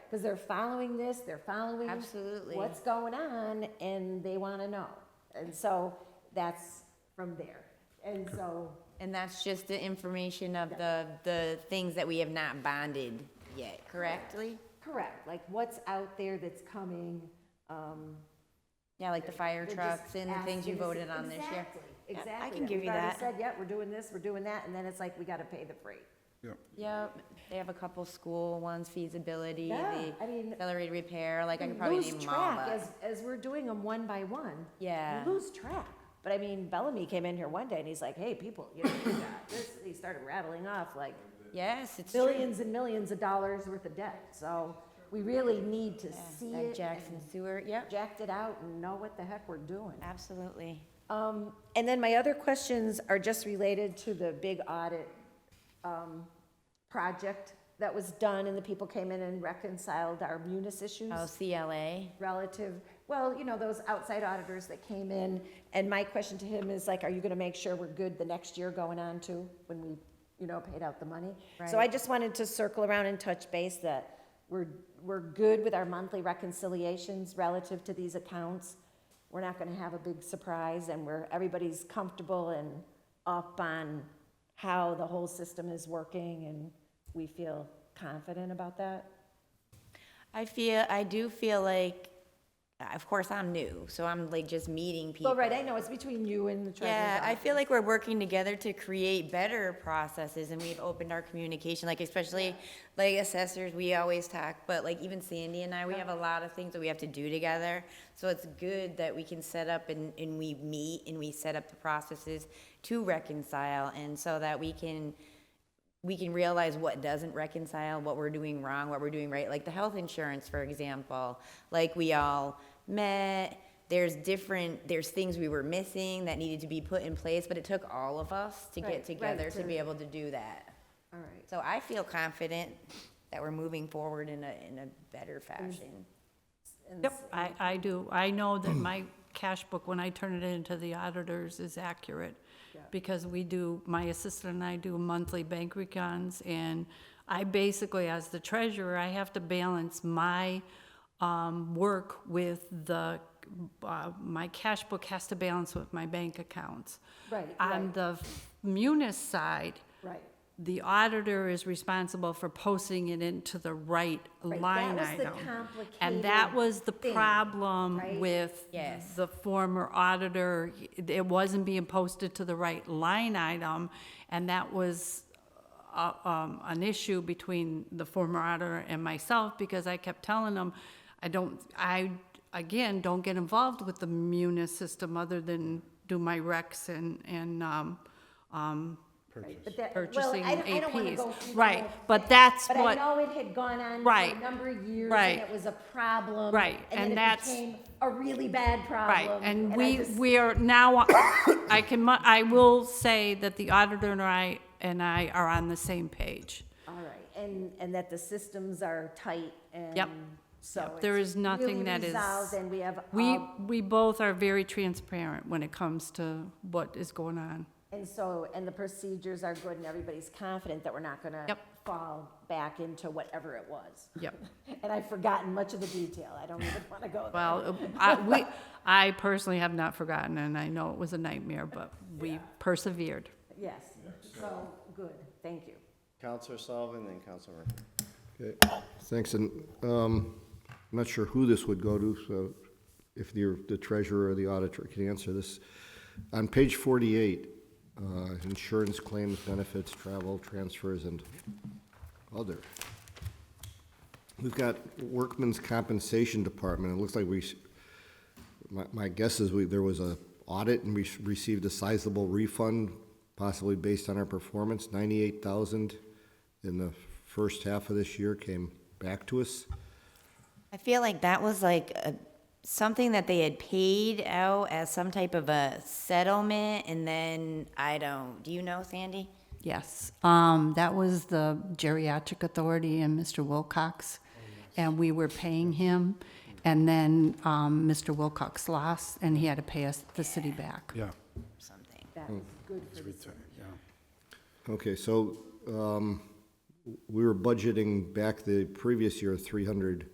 because they're following this, they're following Absolutely. what's going on, and they want to know. And so that's from there. And so, And that's just the information of the, the things that we have not bonded yet, correctly? correct, like what's out there that's coming, um. Yeah, like the fire they're trucks just and the things asking you us- voted on this year. Exactly, Yep, I Exactly. can give you that. We've already said, yeah, we're doing this, we're doing that, and then it's like, we got to pay the freight. Yep. Yep, they have a couple school ones, feasibility, Yeah, I the mean, accelerated repair, like I you could probably lose name them all, track but. as, as we're doing them one by one. Yeah. You lose track. But I mean, Bellamy came in here one day and he's like, hey, people, you know, we got this, he started rattling off like Yes, it's true. billions and millions of dollars worth of debt. So we really need to see Like it, Jackson Sewer, yep, project it out and know what the heck we're doing. absolutely. Um, and then my other questions are just related to the big audit, um, project that was done and the people came in and reconciled our munis issues Oh, CLA, relative, well, you know, those outside auditors that came in. And my question to him is like, are you gonna make sure we're good the next year going on too, when we, you know, paid out the money? So I Right. just wanted to circle around and touch base that we're, we're good with our monthly reconciliations relative to these accounts. We're not gonna have a big surprise and we're, everybody's comfortable and up on how the whole system is working and we feel confident about that. I feel, I do feel like, of course, I'm new, so I'm like just meeting people. Well, right, I know, it's between you and the treasurer's Yeah, I office. feel like we're working together to create better processes and we've opened our communication, like especially like assessors, we always talk, but like even Sandy and I, we have a lot of things that we have to do together. So it's good that we can set up and, and we meet and we set up the processes to reconcile and so that we can, we can realize what doesn't reconcile, what we're doing wrong, what we're doing right. Like the health insurance, for example, like we all met. There's different, there's things we were missing that needed to be put in place, but it took all of us to Right, right, get together to to- be able to do that. All right. So I feel confident that we're moving forward in a, in a better Mm. fashion. and Yep, I, I do. I know that my cash book, when I turn it into the auditors, is accurate. Because we do, my assistant and I do monthly bank recons, and I basically, as the treasurer, I have to balance my, um, work with the, uh, my cash book has to balance with my bank accounts. Right, On right. the munis side, Right. the auditor is responsible for posting it into the right that line was the item. complicated And that was the thing, right? problem with Yes. the former auditor. It wasn't being posted to the right line item, and that was uh, um, an issue between the former auditor and myself, because I kept telling him, I don't, I, again, don't get involved with the munis system other than do my recs and, and, um, But that- well, I don't- purchasing I don't wanna APs. go through the Right, whole but thing. that's But I what- know it had gone on for a Right, number of years, right. and it was a problem. Right, and then it that's- became a really bad Right, problem. and I we, just- we are now, I can, mu- I will say that the auditor and I, and I are on the same page. All right, and, and that the systems are tight and. Yep, So. There it's is nothing really that is. resolved, And we have. We, all- we both are very transparent when it comes to what is going on. And so, and the procedures are good, and everybody's confident that we're not gonna. Yep. Fall back into whatever it was. Yep. And I've forgotten much of the detail. I don't even wanna go there. Well, I, we, I personally have not forgotten, and I know it was a nightmare, but we persevered. Yes, so, good, thank you. Counselor Sullivan, then Counselor Murphy. Okay, Thanks, and um, I'm not sure who this would go to, so if the the treasurer or the auditor can answer this. On page 48, uh, insurance claims, benefits, travel, transfers, and other. We've got workman's compensation department, it looks like we, s- my- my guess is we, there was a audit and we s- received a sizable refund, possibly based on our performance, ninety-eight thousand in the first half of this year came back to us. I feel like that was like a, something that they had paid out as some type of a settlement and then, I don't, do you know, Sandy? Yes, um, that was the geriatric authority and Mr. Wilcox, and we were paying him, and then, um, Mr. Wilcox lost, and he had to pay us, the city back. Yeah, Something. That was good for the city. yeah. Okay, so um, we were budgeting back the previous year three hundred